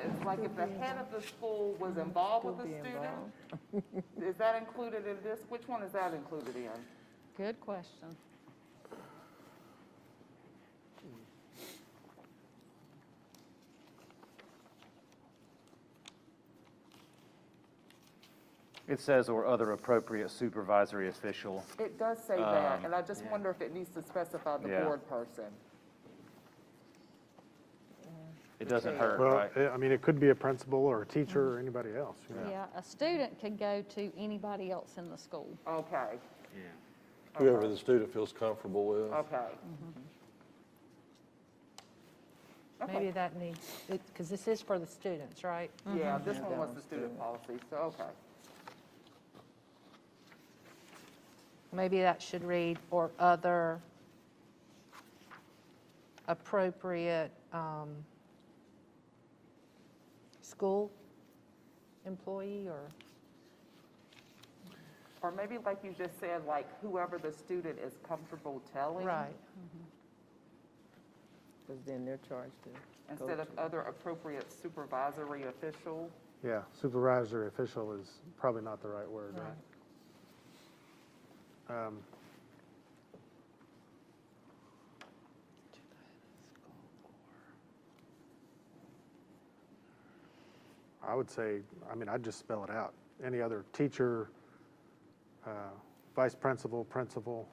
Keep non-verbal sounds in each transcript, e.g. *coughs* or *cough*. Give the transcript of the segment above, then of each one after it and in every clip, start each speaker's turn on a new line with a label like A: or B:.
A: is, like if the head of the school was involved with the student, is that included in this? Which one is that included in?
B: Good question.
C: It says, or other appropriate supervisory official.
A: It does say that, and I just wonder if it needs to specify the
C: Yeah.
A: board person.
C: It doesn't hurt,
D: Well,
C: right?
D: eh, I mean, it could be a principal or a teacher or anybody else, you know.
B: Yeah, a student can go to anybody else in the school.
A: Okay,
E: Whoever the student feels comfortable with.
A: okay.
F: Maybe that needs, because this is for the students, right?
A: Yeah, this one was the student policy, so, okay.
F: Maybe that should read, or other appropriate um, school employee or,
A: Or maybe like you just said, like whoever the student is comfortable telling.
F: right,
G: Because then they're charged to go
A: Instead
G: to.
A: of other appropriate supervisory official.
D: Yeah, supervisory official is probably not the right word, right? Um, I would say, I mean, I'd just spell it out. Any other teacher, uh, vice principal, principal,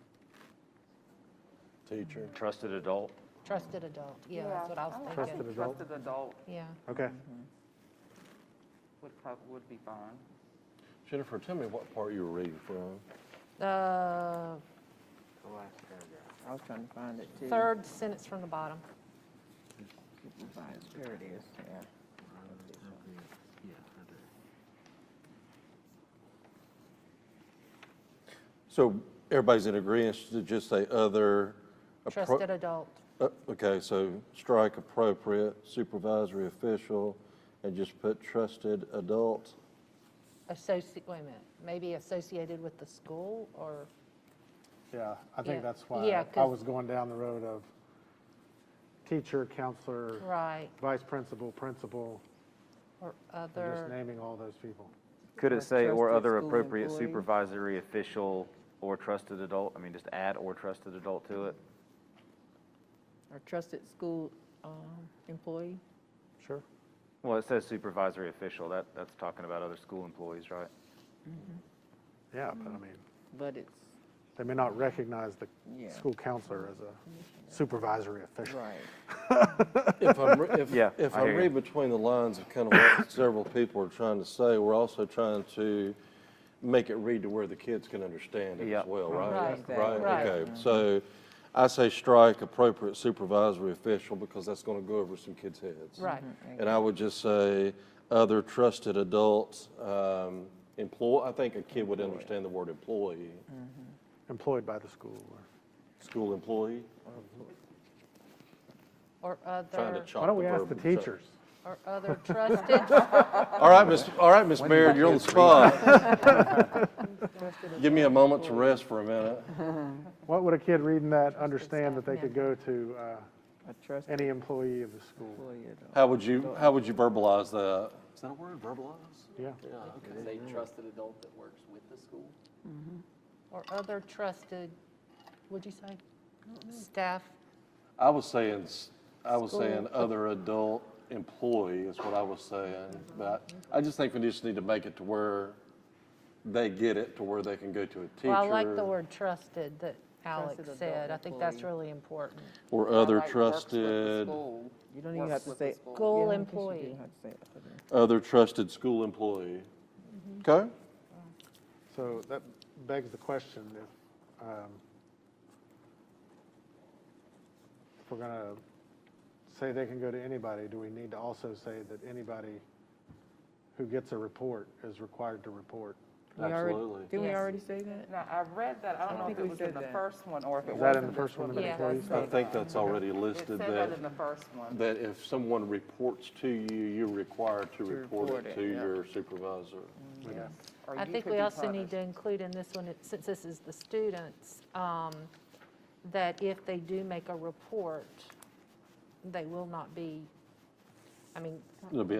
E: Teacher.
C: Trusted adult.
F: trusted adult, yeah, that's what I
A: like-
F: was
A: I
F: thinking.
A: think
D: Trusted adult.
A: Trusted adult
F: Yeah,
D: okay?
A: would, cov- would be fine.
E: Jennifer, tell me what part you were reading from.
F: the
G: I was trying to find it too.
F: third sentence from the bottom.
G: Supervisor, There it is, yeah.
E: So everybody's in agreement to just say other. appro-
F: Trusted adult,
E: uh, Okay, so strike appropriate supervisory official and just put trusted adult.
F: associate, wait a minute, maybe associated with the school or,
D: Yeah, I
F: Yeah.
D: think that's
F: Yeah,
D: why I
F: 'cause-
D: was going down the road of teacher, counselor,
F: right,
D: vice principal, principal,
F: or
D: and just
F: other,
D: naming all those people.
C: Could it say, or
G: trusted
C: other
G: school
C: appropriate
G: employee.
C: supervisory official or trusted adult? I mean, just add or trusted adult to it?
G: Or trusted school um, employee.
D: Sure.
C: Well, it says supervisory official. That, that's talking about other school employees, right?
D: Yeah, but I
F: Mm-hmm.
D: mean,
G: But it's,
D: they may not recognize the
G: Yeah.
D: school counselor as a supervisory official.
G: right,
E: If I'm, re- if,
C: Yeah,
E: if
C: I
E: I
C: hear you.
E: read between the lines of kind of what *coughs* several people are trying to say, we're also trying to make it read to where the kids can understand it
C: Yeah.
E: as well,
F: Mm-hmm. Right.
E: right?
F: Exactly. Right. Mm-hmm.
E: Right, okay. So I say strike appropriate supervisory official because that's going to go over some kids' heads.
F: right.
G: Mhm.
E: And I would just say other trusted adults, um, employ, I think a kid would understand the word employee,
D: Employed by the school or.
F: Mm.
E: school employee,
F: Or
E: trying to
F: other,
E: chop
D: Why don't
E: the
D: we ask the
E: verb and chop-
D: teachers?
F: or other trusted,
E: All right, Miss, all right, Miss Baird, you're on the spot. Give me a moment to rest for a minute.
D: What would a kid reading that understand that they could go to uh,
G: a trusted
D: any employee of the school?
G: employee. at all.
E: How would you, how would you verbalize that? Is that a word, verbalize?
D: Yeah,
H: Is a trusted adult that works with the school?
F: or other trusted, what'd you say? Staff,
E: I was saying, s- I was saying other adult employee is what I was saying, but I just think we just need to make it to where they get it, to where they can go to a teacher.
F: well, I like the word trusted that
G: Trusted
F: Alex
G: adult
F: said, I think that's
G: employee.
F: really important.
E: Or
A: I
E: other
A: like works with the
E: trusted,
A: school,
G: You don't even
A: works
G: have to
A: with the
G: say.
A: school.
F: School
G: Yeah, I guess you do
F: employee.
G: have to say it, okay.
E: other trusted school employee. Okay?
D: so that begs the question if, um, if we're gonna say they can go to anybody, do we need to also say that anybody who gets a report is required to report?
G: We already-
E: Absolutely.
G: Didn't we
F: Yes.
G: already say that?
A: Now, I read that, I don't know
G: think
A: if it
G: we
A: was in
G: said
A: the
G: that.
A: first one or if it
D: Is
A: was.
D: that in the first one, the
F: Yeah.
D: employees?
E: I think that's already
A: It
E: listed
A: said
E: that,
A: that in the first one.
E: that if someone reports to you, you're required to report
G: report
E: it
G: it,
E: to
G: yeah.
E: your supervisor.
A: Yes. Or
F: I
A: you
F: think
A: could
F: we
A: be
F: also need
A: punished.
F: to include in this one, it- since this is the students, um, that if they do make a report, they will not be, I mean,
E: It'll be